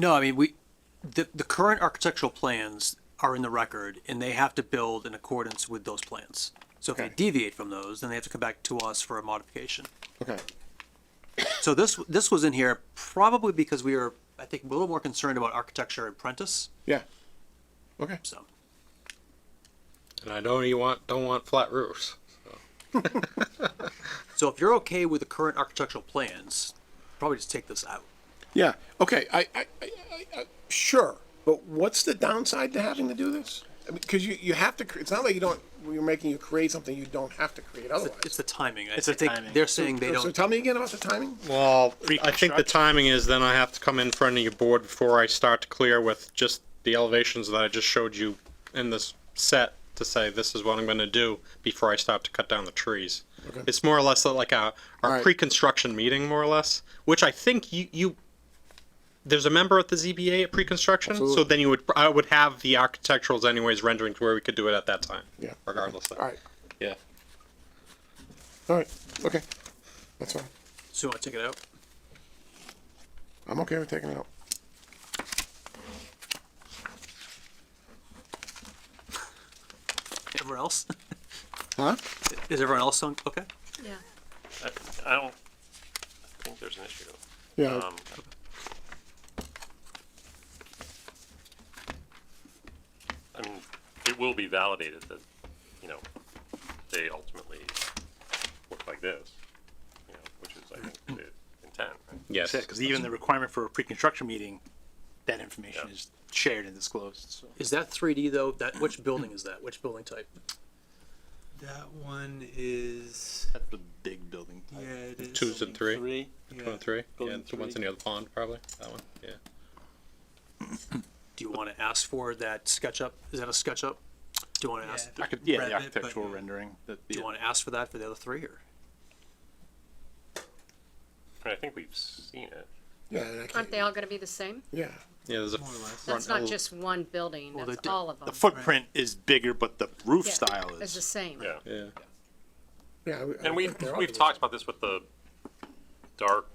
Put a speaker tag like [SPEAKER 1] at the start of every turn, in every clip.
[SPEAKER 1] No, I mean, we, the, the current architectural plans are in the record and they have to build in accordance with those plans. So if they
[SPEAKER 2] Okay.
[SPEAKER 1] deviate from those, then they have to come back to us for a modification.
[SPEAKER 2] Okay,
[SPEAKER 1] So this, this was in here probably because we were, I think, a little more concerned about architecture and Prentice,
[SPEAKER 2] yeah. Okay,
[SPEAKER 1] so.
[SPEAKER 3] And I don't you want don't want flat roofs.
[SPEAKER 1] So if you're okay with the current architectural plans, probably just take this out.
[SPEAKER 2] yeah, okay, I, I, I, I, I- sure, but what's the downside to having to do this? I mean, cause you, you have to, cre- it's not like you don't, you're making you create something you don't have to create
[SPEAKER 1] It's
[SPEAKER 2] otherwise.
[SPEAKER 1] the timing. I
[SPEAKER 4] It's the
[SPEAKER 1] think
[SPEAKER 4] timing.
[SPEAKER 1] they're saying they
[SPEAKER 2] So
[SPEAKER 1] don't,
[SPEAKER 2] tell me again about the timing?
[SPEAKER 3] Well, I think the
[SPEAKER 4] Pre-construct.
[SPEAKER 3] timing is then I have to come in front of your board before I start to clear with just the elevations that I just showed you in this set to say this is what I'm going to do before I start to cut down the trees. It's more or less like a our
[SPEAKER 2] Alright.
[SPEAKER 3] pre-construction meeting, more or less, which I think you you. There's a member at the ZBA at pre-construction, so
[SPEAKER 2] Absolutely.
[SPEAKER 3] then you would I would have the architecturals anyways rendering to where we could do it at that time.
[SPEAKER 2] Yeah.
[SPEAKER 3] Regardless. of-
[SPEAKER 2] Alright,
[SPEAKER 3] Yeah.
[SPEAKER 2] alright, okay, that's fine,
[SPEAKER 1] so you want to take it out?
[SPEAKER 2] I'm okay with taking it out.
[SPEAKER 1] Everyone else?
[SPEAKER 2] Huh?
[SPEAKER 1] Is everyone else on, okay?
[SPEAKER 5] Yeah,
[SPEAKER 4] I, I don't think there's an issue.
[SPEAKER 2] Yeah,
[SPEAKER 3] Oh.
[SPEAKER 4] Um, I mean, it will be validated that, you know, they ultimately look like this, you know, which is, I think, the intent, right?
[SPEAKER 3] Yes.
[SPEAKER 6] because even the requirement for a pre-construction meeting, that information
[SPEAKER 4] Yeah.
[SPEAKER 6] is shared and disclosed, so.
[SPEAKER 1] Is that three D though? That, which building is that? Which building type?
[SPEAKER 7] That one is
[SPEAKER 6] That's the big building.
[SPEAKER 7] yeah, it is.
[SPEAKER 3] Twos and three.
[SPEAKER 7] Yeah.
[SPEAKER 3] One three. Yeah,
[SPEAKER 7] Golden
[SPEAKER 3] the ones
[SPEAKER 7] three.
[SPEAKER 3] near the pond, probably. That one. Yeah.
[SPEAKER 1] Do you want to ask for that SketchUp? Is that a SketchUp? Do you want to ask,
[SPEAKER 7] Yeah.
[SPEAKER 6] I could, yeah,
[SPEAKER 7] Rep
[SPEAKER 6] the
[SPEAKER 7] it, but-
[SPEAKER 6] architectural rendering, that,
[SPEAKER 1] do you want to ask for that for the other three or?
[SPEAKER 4] And I think we've seen it.
[SPEAKER 2] yeah, and I can't-
[SPEAKER 5] aren't they all gonna be the same?
[SPEAKER 2] yeah,
[SPEAKER 3] Yeah, there's a
[SPEAKER 7] More or less.
[SPEAKER 3] front
[SPEAKER 5] That's not
[SPEAKER 3] ele-
[SPEAKER 5] just one building,
[SPEAKER 1] Well,
[SPEAKER 5] that's
[SPEAKER 1] they do-
[SPEAKER 5] all of them.
[SPEAKER 6] the footprint is bigger, but the roof
[SPEAKER 5] Yeah,
[SPEAKER 6] style
[SPEAKER 5] It's the
[SPEAKER 6] is,
[SPEAKER 5] same.
[SPEAKER 4] Yeah.
[SPEAKER 3] Yeah.
[SPEAKER 2] yeah. I- I
[SPEAKER 4] And we,
[SPEAKER 2] think they're all
[SPEAKER 4] we've
[SPEAKER 2] the-
[SPEAKER 4] talked about this with the dark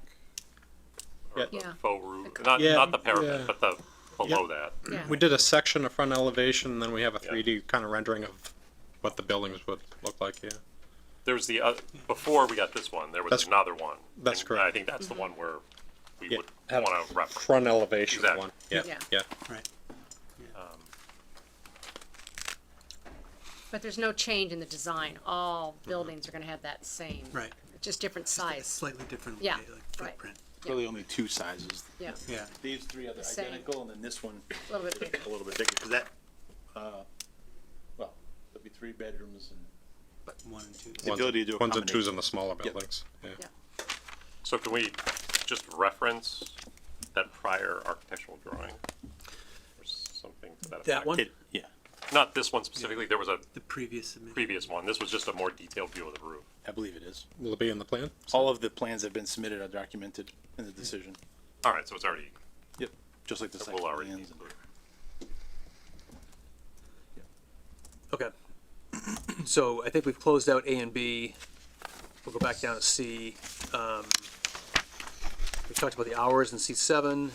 [SPEAKER 3] Yeah.
[SPEAKER 5] Yeah.
[SPEAKER 4] faux roof, not,
[SPEAKER 3] Yeah,
[SPEAKER 4] not the
[SPEAKER 3] yeah.
[SPEAKER 4] parapet, but the, below that.
[SPEAKER 5] Yeah.
[SPEAKER 3] We did a section of front elevation, and then we have a
[SPEAKER 4] Yeah.
[SPEAKER 3] 3D kind of rendering of what the buildings would look like. Yeah.
[SPEAKER 4] There was the, oth- before we got this one, there was
[SPEAKER 3] That's-
[SPEAKER 4] another one.
[SPEAKER 3] that's
[SPEAKER 4] And I
[SPEAKER 3] correct.
[SPEAKER 4] think that's the one where we
[SPEAKER 3] Yeah,
[SPEAKER 4] would
[SPEAKER 3] had a
[SPEAKER 4] wanna reference.
[SPEAKER 3] Front elevation
[SPEAKER 4] Exactly.
[SPEAKER 3] one. Yeah. Yeah.
[SPEAKER 5] Yeah.
[SPEAKER 7] Right.
[SPEAKER 5] But there's no change in the design, all buildings are gonna have that same.
[SPEAKER 7] Right.
[SPEAKER 5] Just different size,
[SPEAKER 7] Slightly different.
[SPEAKER 5] Yeah,
[SPEAKER 7] way,
[SPEAKER 5] right.
[SPEAKER 7] Like footprint.
[SPEAKER 6] really only two sizes.
[SPEAKER 5] yeah,
[SPEAKER 7] Yeah.
[SPEAKER 6] These three are the
[SPEAKER 5] same.
[SPEAKER 6] identical, and then this one
[SPEAKER 5] a little bit bigger.
[SPEAKER 6] a little bit bigger, because that, uh, well, there'll be three bedrooms and.
[SPEAKER 7] One and two.
[SPEAKER 3] Ones-
[SPEAKER 6] ability to
[SPEAKER 3] Ones and twos
[SPEAKER 6] accommodate.
[SPEAKER 3] in the smaller buildings. Yeah.
[SPEAKER 5] Yeah.
[SPEAKER 4] So can we just reference that prior architectural drawing? Or something to that effect?
[SPEAKER 1] That one?
[SPEAKER 6] It, yeah,
[SPEAKER 4] Not this one specifically, there was a
[SPEAKER 7] The previous submission.
[SPEAKER 4] previous one, this was just a more detailed view of the roof.
[SPEAKER 6] I believe it is.
[SPEAKER 3] Will it be in the plan?
[SPEAKER 6] All of the plans that have been submitted are documented in the decision.
[SPEAKER 4] All right, so it's already,
[SPEAKER 6] Yep, just like the
[SPEAKER 4] it
[SPEAKER 6] site
[SPEAKER 4] will already be
[SPEAKER 6] plans.
[SPEAKER 4] included.
[SPEAKER 1] Okay. So I think we've closed out A and B. We'll go back down to C. Um, we talked about the hours in C seven.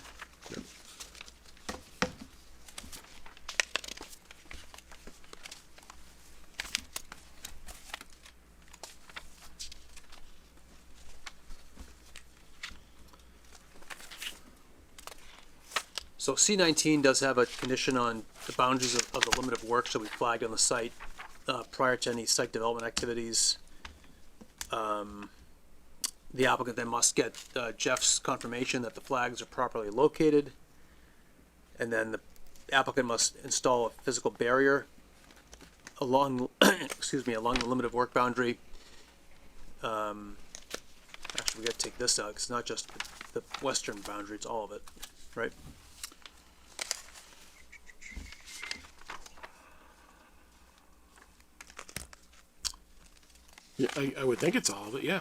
[SPEAKER 1] So C nineteen does have a condition on the boundaries of, of the limit of work shall be flagged on the site, uh, prior to any site development activities. Um, the applicant then must get uh, Jeff's confirmation that the flags are properly located. And then the applicant must install a physical barrier along, excuse me, along the limit of work boundary. Um, actually, we gotta take this out, 'cause it's not just the the western boundary, it's all of it, right?
[SPEAKER 2] Yeah, I, I would think it's all of it, yeah.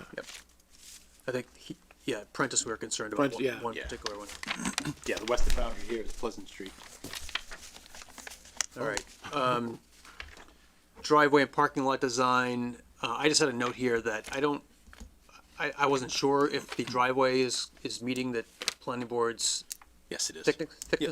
[SPEAKER 1] I think, he, yeah, Prentice, we were concerned about
[SPEAKER 2] Prentice, yeah.
[SPEAKER 1] one, one
[SPEAKER 6] Yeah.
[SPEAKER 1] particular one.
[SPEAKER 6] Yeah, the western boundary here is Pleasant Street.
[SPEAKER 1] All right. Um, driveway and parking lot design, uh, I just had a note here that I don't, I, I wasn't sure if the driveway is, is meeting the planning board's Yes, it is. Thickness, thickness